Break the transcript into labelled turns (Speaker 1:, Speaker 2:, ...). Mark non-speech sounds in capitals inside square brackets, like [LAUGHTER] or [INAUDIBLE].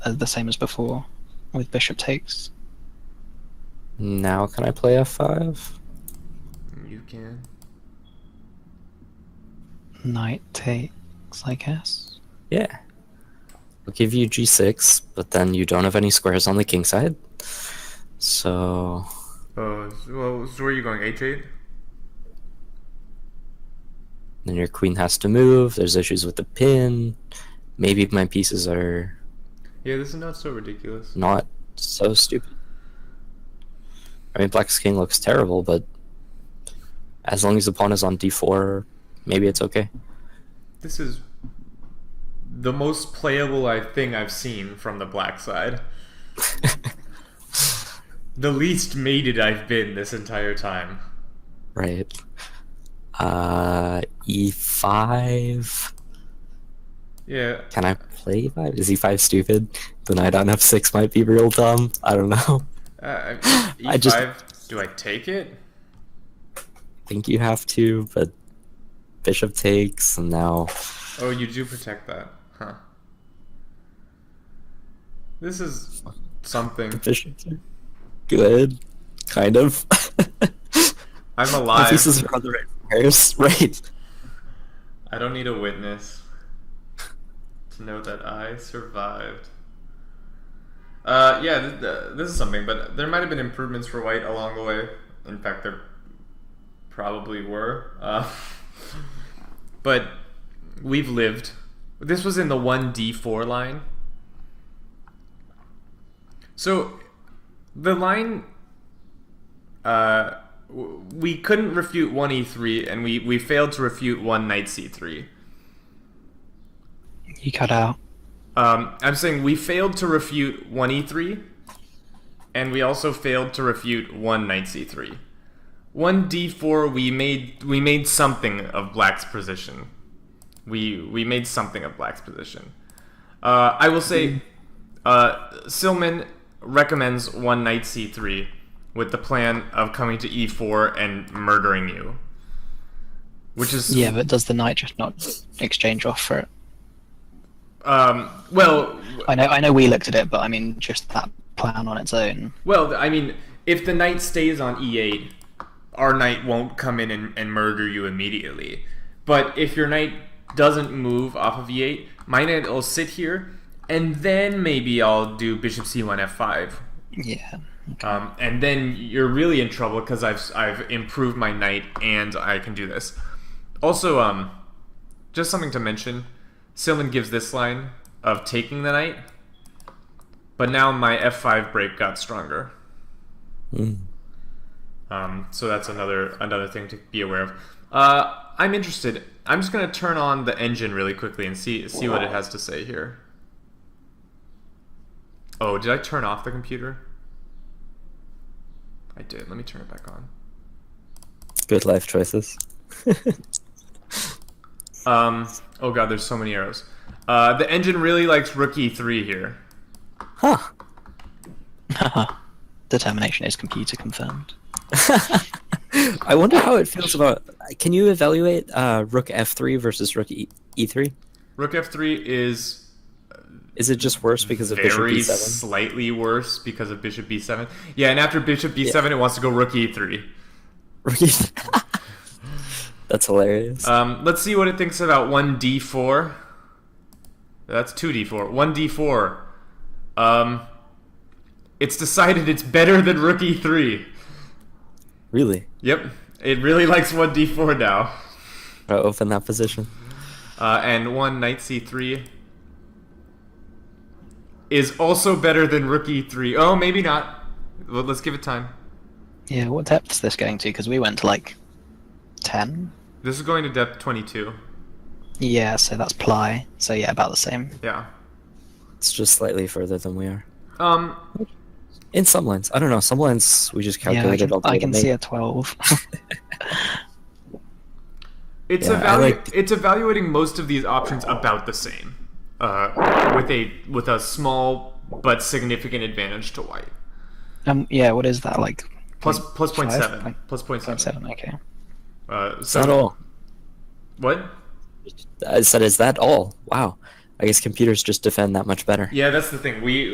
Speaker 1: uh, the same as before, with bishop takes.
Speaker 2: Now can I play f5?
Speaker 3: You can.
Speaker 1: Knight takes, I guess.
Speaker 2: Yeah. We'll give you g6, but then you don't have any squares on the king side. So
Speaker 3: Oh, so- well, so where are you going? H8?
Speaker 2: then your queen has to move. There's issues with the pin. Maybe my pieces are
Speaker 3: Yeah, this is not so ridiculous.
Speaker 2: not so stupid. I mean, Black's king looks terrible, but as long as the pawn is on d4, maybe it's okay. [LAUGHS]
Speaker 3: This is the most playable I thing I've seen from the black side. The least mated I've been this entire time.
Speaker 2: right. Uh, e5.
Speaker 3: Yeah,
Speaker 2: Can I play e5? Is e5 stupid? The knight on f6 might be real dumb. I don't know. [LAUGHS]
Speaker 3: uh,
Speaker 2: [GASPS] I just-
Speaker 3: E5, Do I take it?
Speaker 2: think you have to, but bishop takes, and now
Speaker 3: Oh, you do protect that, huh? This is something.
Speaker 2: bishop. Good, kind of. [LAUGHS]
Speaker 3: I'm
Speaker 2: My
Speaker 3: alive.
Speaker 2: pieces are on the right squares, [LAUGHS] right?
Speaker 3: I don't need a witness to know that I survived. Uh, yeah, th- th- this is something, but there might have been improvements for White along the way. In fact, there probably were. Uh, [LAUGHS] but we've lived. This was in the 1d4 line. So, the line uh, w- we couldn't refute one e3, and we, we failed to refute one knight c3.
Speaker 1: You cut out.
Speaker 3: Um, I'm saying we failed to refute one e3, and we also failed to refute one knight c3. One d4, we made we made something of black's position. We we made something of black's position. Uh, I will say, uh, Silman recommends one knight c3 with the plan of coming to e4 and murdering you, which is
Speaker 1: Yeah, but does the knight just not exchange off for it?
Speaker 3: um, well
Speaker 1: I know, I know, we looked at it, but I mean, just that plan on its own.
Speaker 3: Well, I mean, if the knight stays on e8, our knight won't come in and, and murder you immediately. But if your knight doesn't move off of e8, my knight will sit here, and then maybe I'll do bishop c1 f5.
Speaker 1: Yeah.
Speaker 3: Um, and then you're really in trouble because I've, I've improved my knight and I can do this. Also, um, just something to mention Silman gives this line of taking the knight, but now my f5 break got stronger.
Speaker 2: Mm.
Speaker 3: Um, so that's another another thing to be aware of. Uh, I'm interested. I'm just gonna turn on the engine really quickly and see see what it has to say here. Oh, did I turn off the computer? I did. Let me turn it back on.
Speaker 2: Good life choices.
Speaker 3: Um, oh god, there's so many arrows. Uh, the engine really likes rook e3 here.
Speaker 2: huh.
Speaker 1: Determination is computer confirmed.
Speaker 2: I wonder how it feels about. Can you evaluate uh, rook f3 versus rook e- e3?
Speaker 3: Rook f3 is
Speaker 2: Is it just worse because of bishop
Speaker 3: very
Speaker 2: [LAUGHS] e7?
Speaker 3: slightly worse because of bishop b7. Yeah, and after bishop b7, it wants to go rook e3.
Speaker 2: Rook e- [LAUGHS] That's hilarious.
Speaker 3: Um, let's see what it thinks about 1d4. That's 2d4. 1d4. Um, it's decided it's better than rook e3.
Speaker 2: really?
Speaker 3: Yep. It really likes 1d4 now.
Speaker 2: Gotta Open that position.
Speaker 3: Uh, and 1 knight c3 is also better than rook e3. Oh, maybe not. Well, let's give it time.
Speaker 1: Yeah, what depth's this going to? Because we went to like ten.
Speaker 3: This is going to depth 22.
Speaker 1: Yeah, so that's ply. So yeah, about the same.
Speaker 3: Yeah.
Speaker 2: It's just slightly further than we are.
Speaker 3: Um,
Speaker 2: In some lines, I don't know. Some lines we just
Speaker 1: Yeah, I
Speaker 2: calculated
Speaker 1: can,
Speaker 2: all the
Speaker 1: I
Speaker 2: way
Speaker 1: can
Speaker 2: to
Speaker 1: see
Speaker 2: make.
Speaker 1: a twelve. [LAUGHS]
Speaker 3: It's
Speaker 2: Yeah, I
Speaker 3: evalu-
Speaker 2: like-
Speaker 3: it's evaluating most of these options about the same, uh, with a with a small but significant advantage to white.
Speaker 1: um, yeah, what is that like?
Speaker 3: Plus plus point
Speaker 1: Five?
Speaker 3: seven.
Speaker 1: Point-
Speaker 3: Plus point
Speaker 1: Point
Speaker 3: seven.
Speaker 1: seven. Okay.
Speaker 3: Uh, so
Speaker 2: Is that all?
Speaker 3: what?
Speaker 2: I said, is that all? Wow.
Speaker 4: I guess computers just defend that much better.
Speaker 2: Yeah, that's the thing. We